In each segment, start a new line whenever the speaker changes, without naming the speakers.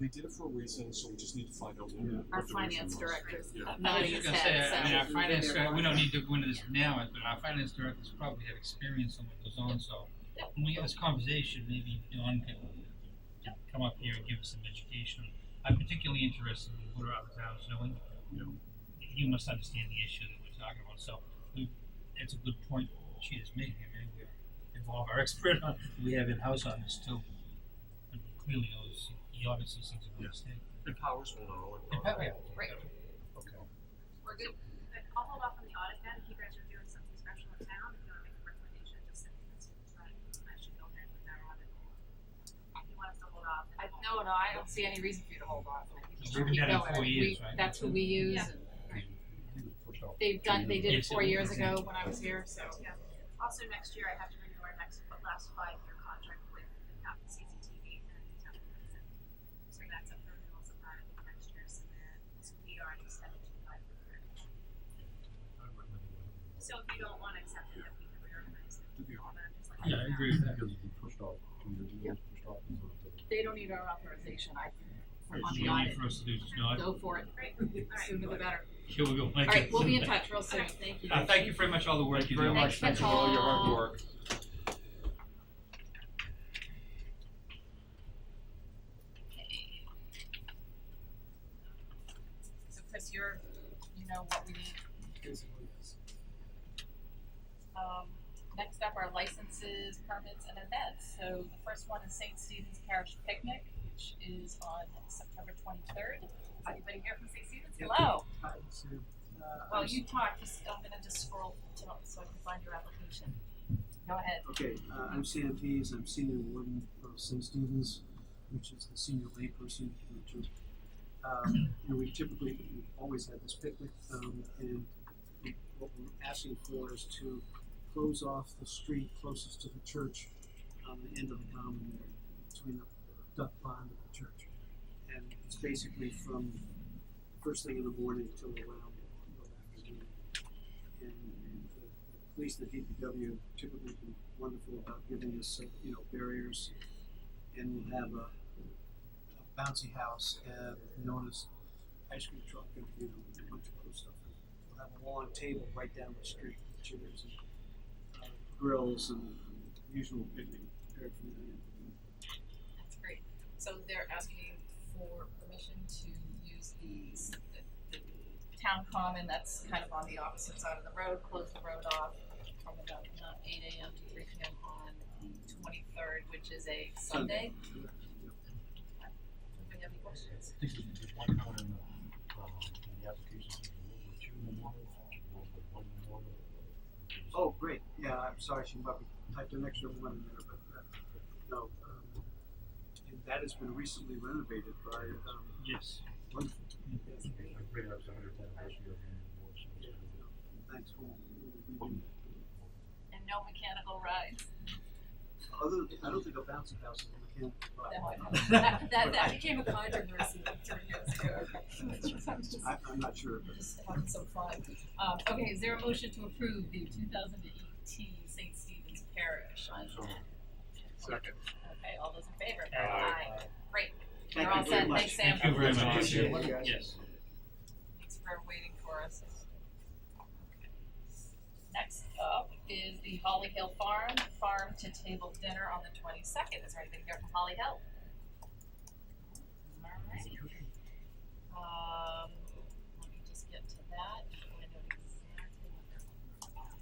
They did it for a reason, so we just need to find out. what-
Yeah.
what
Our
the
finance
reason was.
director's
Yeah.
not
No, I was just gonna say, I mean, our
head,
finance director, we don't need to go into this now, but our finance directors probably have experience on what goes on, so when we have this conversation, maybe Dawn can come up here and give us some education. I'm particularly interested in what are other towns doing. You must understand the issue that we're talking about, so we, that's a good point she is making, I mean, we involve our expert on, we have in-house on this too. And he clearly knows, he obviously sees a
Yeah.
mistake.
And Powers will know.
And Pat, yeah.
Right.
Okay.
We're good. But I'll hold off on the audit then, if you guys are doing something special in town, if you wanna make a recommendation, just send me a message, but I should go ahead with that audit. If you want us to hold off. then
I,
we'll-
no, no, I don't see any reason for you to hold off. I think you
We've
should
been
keep
down
going.
four
We-
years, right?
That's who we use.
Yeah.
They've done, they did it
Yes, it
four
was
years
easy.
ago when I was here, so.
Yeah. Also, next year, I have to renew our next, but last five-year contract with um, the town CCTV and the town. of Hudson. So that's up for renewal sometime in next year, so then, so we already accepted two five year. So if you don't wanna accept it, then we can reorganize it.
To be honest,
But I'm just like-
Yeah, I agree with that.
Because we pushed off, I mean, it was pushed off. and so it-
They don't need our authorization, I, think, on
It's
the
the
audit.
only for us to do is not,
Go for it,
Great, alright.
sooner the better.
here we go.
All right, we'll be in touch real soon, thank you.
Uh, thank you very much, all the work you do.
much. Thanks for all your hard work. So Chris, you're, you know what we need. Um, next up are licenses, permits, and events. So the first one is St. Stephen's Parish Picnic, which is on September twenty-third. Is anybody here from St. Stephen's? Hello. Well, you talk, just, I'm gonna just scroll to, so I can find your application. Go ahead.
Okay, uh, I'm Sam Pease, I'm senior warden of St. Stephen's, which is the senior layperson for the church. Um, and we typically, we've always had this picnic, um, and what we're asking for is to close off the street closest to the church on the end of the common there, between the duck pond and the church. And it's basically from first thing in the morning till around, till afternoon and the the police, the DPW typically been wonderful about giving us, uh, you know, barriers. And we'll have a a bouncy house, uh, known as ice cream truck and, you know, a bunch of other stuff. We'll have a long table right down the street with chairs and uh, grills and usual picnic prepared for the
That's great. So they're asking for permission to use the, s- the, the town common that's kind of on the opposite side of the road, close the road off from about uh, eight AM to three PM on the twenty-third, which is a Sunday. Anybody have any questions?
I think we did one point in the, um, in the application, we were two memorial, or one memorial.
Oh, great, yeah, I'm sorry, she probably typed an extra one in there, but, uh, no, um, and that has been recently renovated by, um,
Yes.
wonderful,
I agree, that was a hundred thousand last year. and more, so it's gonna be-
thanks, we'll, we'll redo
And no mechanical rides.
that. Other, I don't think a bouncy house is in the
No,
camp.
That, that, that became a controversy like three years ago. So I'm just-
I, I'm not sure, but
just having some fun. Um, okay, is there a motion to approve the two thousand and eighteen St. Stephen's Parish? on-
So,
Second.
Okay, all those in favor?
Aye.
Great, you're all
thank you
set,
very much.
thanks Sam.
Thank you very much.
Appreciate it. Thank you, guys.
Yes.
Thanks for waiting for us. Okay. Next up is the Holly Hill Farm, farm to table dinner on the twenty-second, is there anybody here from Holly Hill? Alright. Um, let me just get to that, I know exactly what they're talking Um, about.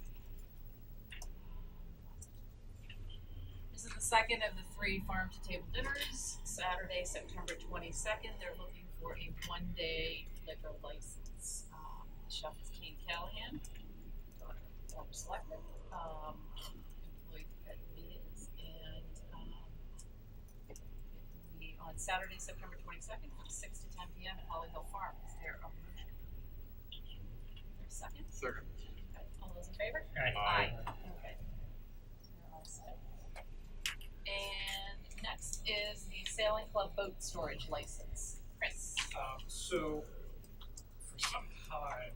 This is the second of the three farm to table dinners, Saturday, September twenty-second, they're looking for a one-day liquor license. Um, the chef is Kane Callahan, daughter of former selectman, um, employed at Meads, and, um, it will be on Saturday, September twenty-second, from six to ten PM at Holly Hill Farm, is there a motion? There's a second?
Second.
Okay, all those in favor?
Aye.
Okay. So we're all set. And next is the Sailing Club Boat Storage License, Chris.
Um, so, for some time,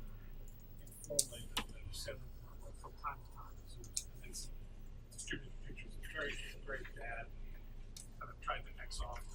informally, the the seven, well, from time to time, so it's been distributed pictures of very, very bad, kind of tried to X off